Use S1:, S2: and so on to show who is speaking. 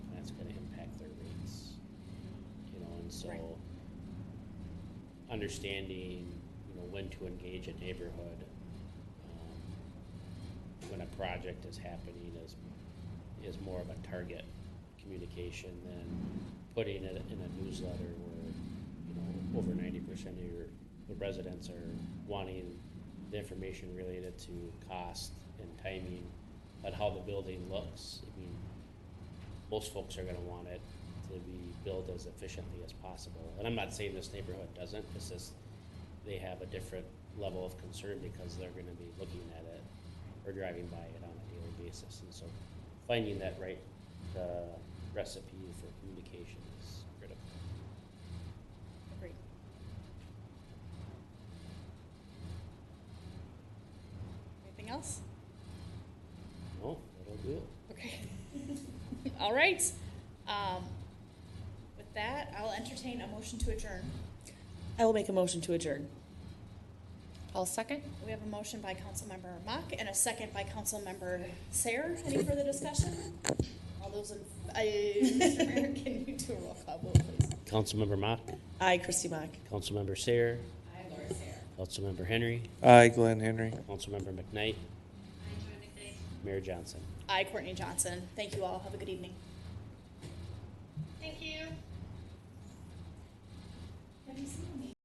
S1: so
S2: Right.
S1: understanding, you know, when to engage a neighborhood, um, when a project is happening is, is more of a target communication than putting it in a newsletter where, you know, over ninety percent of your, the residents are wanting the information related to cost and timing, but how the building looks. I mean, most folks are gonna want it to be built as efficiently as possible. And I'm not saying this neighborhood doesn't, it's just they have a different level of concern because they're gonna be looking at it or driving by it on a daily basis. And so finding that right, uh, recipe for communication is critical.
S2: Agreed. Anything else?
S1: No, that'll do it.
S2: Okay. All right. Um, with that, I'll entertain a motion to adjourn.
S3: I will make a motion to adjourn. I'll second.
S2: We have a motion by Councilmember Mock and a second by Councilmember Sayer. Any further discussion? All those in, uh, Mr. Mayor, can you do a roll call vote, please?
S1: Councilmember Mock,
S3: Aye, Christy Mock.
S1: Councilmember Sayer,
S2: I, Laura Sayer.
S1: Councilmember Henry,
S4: Aye, Glenn Henry.
S1: Councilmember McKnight. Mayor Johnson.
S2: I, Courtney Johnson. Thank you all. Have a good evening.